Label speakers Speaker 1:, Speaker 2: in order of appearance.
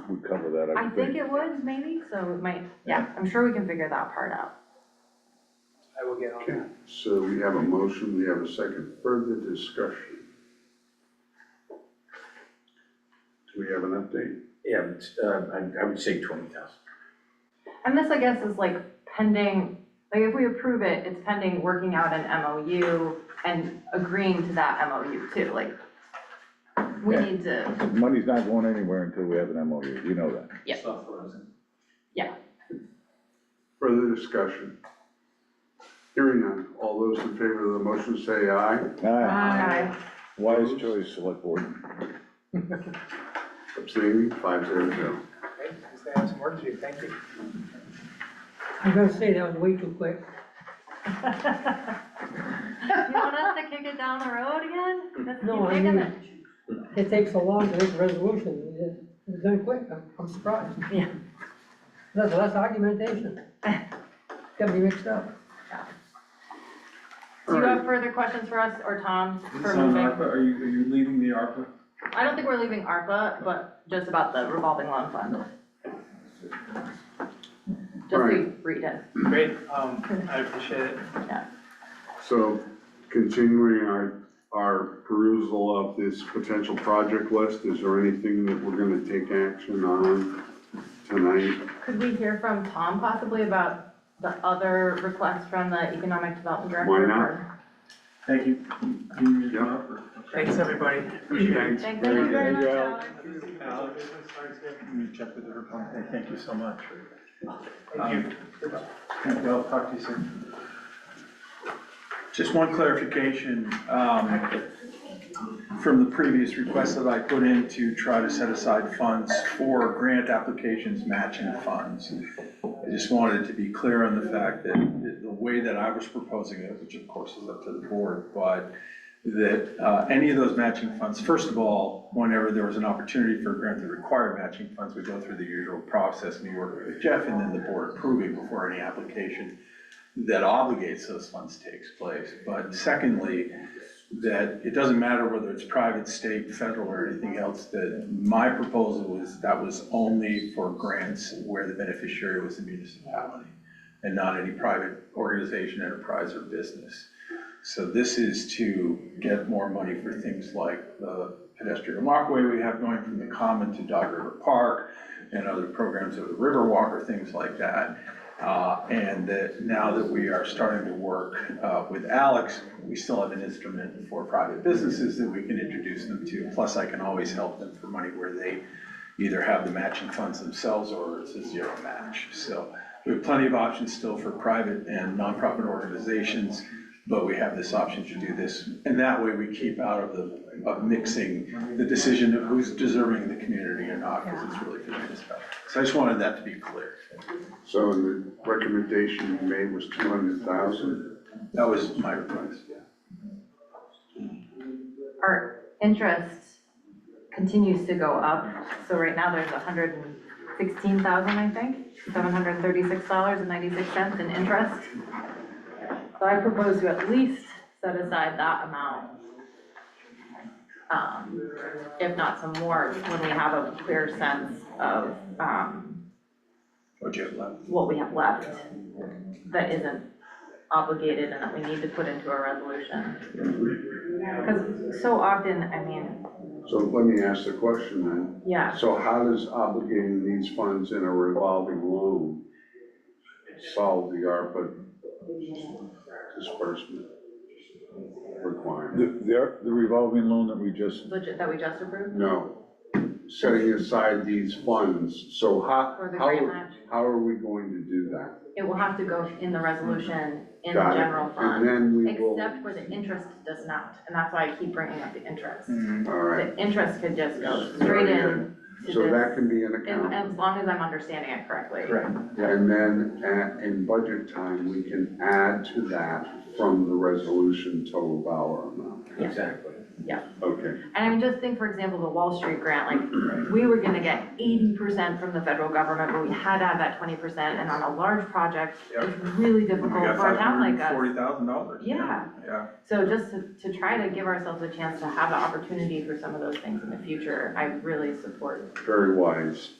Speaker 1: that, I
Speaker 2: I
Speaker 1: would
Speaker 2: think
Speaker 1: think.
Speaker 2: it would maybe, so it might, yeah, I'm sure we can figure that part out.
Speaker 3: I will get on
Speaker 1: Okay,
Speaker 3: that.
Speaker 1: so we have a motion, we have a second, further discussion. Do we have an update?
Speaker 4: Yeah, it's, uh, I, I would say twenty thousand.
Speaker 2: And this, I guess, is like pending, like if we approve it, it's pending working out an MOU and agreeing to that MOU too, like we
Speaker 5: Yeah.
Speaker 2: need to,
Speaker 5: Money's not going anywhere until we have an MOU, you know that.
Speaker 2: Yeah.
Speaker 3: It's not frozen.
Speaker 1: Further discussion? Hearing none, all those in favor of the motion say aye.
Speaker 5: Aye.
Speaker 2: Aye.
Speaker 5: Wise choice, select board.
Speaker 1: Abstaining, five zero zero.
Speaker 3: Okay, just gonna have some work to do, thank you.
Speaker 6: I gotta say, that was way too quick.
Speaker 2: you want us to kick it down the road again? Let's keep
Speaker 6: No, I
Speaker 2: kicking
Speaker 6: mean-
Speaker 2: it.
Speaker 6: It takes so long to make a resolution, it- it's done quick, I'm- I'm surprised.
Speaker 2: Yeah.
Speaker 6: That's less argumentation. Got me mixed up.
Speaker 2: Do you have further questions for us or Tom for moving?
Speaker 7: are you, are you leaving the ARPA?
Speaker 2: I don't think we're leaving ARPA, but just about the revolving loan fund. Just re- read it.
Speaker 3: Great, um, I appreciate it.
Speaker 1: So continuing our, our perusal of this potential project list, is there anything that we're gonna take action on tonight?
Speaker 2: Could we hear from Tom possibly about the other request from the Economic Development Director?
Speaker 1: Why not?
Speaker 2: or-
Speaker 7: Thank you. Can you-
Speaker 1: Yeah.
Speaker 3: Thanks, everybody.
Speaker 1: Thanks.
Speaker 2: Thank
Speaker 1: Very
Speaker 2: you
Speaker 1: good.
Speaker 2: very
Speaker 5: Thank
Speaker 2: much,
Speaker 5: you.
Speaker 2: Alex.
Speaker 7: Alex, Let me check with her, Okay, thank you so much.
Speaker 3: Thank you.
Speaker 7: Thank you, I'll talk to you soon. Just one clarification, um, from the previous request that I put in to try to set aside funds for grant applications matching funds. I just wanted to be clear on the fact that the- the way that I was proposing it, which of course is up to the board, but that uh, any of those matching funds, first of all, whenever there was an opportunity for a grant to require matching funds, we go through the usual process, New York with Jeff, and then the board approving before any application that obligates those funds takes place. But secondly, that it doesn't matter whether it's private, state, federal, or anything else, that my proposal was that was only for grants where the beneficiary was the municipality and not any private organization, enterprise, or business. So this is to get more money for things like the pedestrian walkway we have going from the common to Dog River Park and other programs of the Riverwalk or things like that. Uh, And that now that we are starting to work uh, with Alex, we still have an instrument for private businesses that we can introduce them to. Plus, I can always help them for money where they either have the matching funds themselves or it's a zero match. So we have plenty of options still for private and nonprofit organizations, but we have this option to do this. And that way we keep out of the, of mixing the decision of who's deserving the community or not, because it's really for the municipality. So I just wanted that to be clear.
Speaker 1: So the recommendation you made was two hundred thousand.
Speaker 7: That was my request, yeah.
Speaker 2: Our interest continues to go up, so right now there's hundred and sixteen thousand, I think, seven hundred and thirty-six dollars and ninety-six cents in interest. So I propose to at least set aside that amount. Um, if not some more, when we have a clear sense of, um,
Speaker 7: What you have left?
Speaker 2: what we have left that isn't obligated and that we need to put into a resolution. Because so often, I mean,
Speaker 1: So let me ask the question then.
Speaker 2: yeah,
Speaker 1: So how does obligating these funds in a revolving loan solve the ARPA disbursement requirement?
Speaker 5: The, the- the revolving loan that we just
Speaker 2: legit, that we just approved
Speaker 1: No, setting aside these funds, so how,
Speaker 2: for the
Speaker 1: how,
Speaker 2: grant
Speaker 1: are-
Speaker 2: match.
Speaker 1: how are we going to do that?
Speaker 2: It will have to go in the resolution in the
Speaker 1: Got it.
Speaker 2: general
Speaker 1: And
Speaker 2: fund,
Speaker 1: then we will,
Speaker 2: except where the interest does not, and that's why I keep bringing up the interest.
Speaker 1: all Mm, right,
Speaker 2: The interest could just go
Speaker 1: Very
Speaker 2: straight in to
Speaker 1: so that
Speaker 2: this,
Speaker 1: can be an
Speaker 2: and-
Speaker 1: account.
Speaker 2: as long as I'm understanding it correctly.
Speaker 1: And then at, in budget time, we can add to that from the resolution total dollar amount.
Speaker 4: Exactly.
Speaker 1: Okay,
Speaker 2: And I mean, just think, for example, the Wall Street grant, like, we were gonna get eighty percent from the federal government, but we had to have that twenty percent, and on a large project, it's really difficult
Speaker 7: We got
Speaker 2: for a
Speaker 7: five
Speaker 2: town
Speaker 7: hundred
Speaker 2: like
Speaker 7: and forty
Speaker 2: us.
Speaker 7: thousand dollars.
Speaker 2: Yeah.
Speaker 7: Yeah,
Speaker 2: So just to, to try to give ourselves a chance to have the opportunity for some of those things in the future, I really support
Speaker 1: very wise.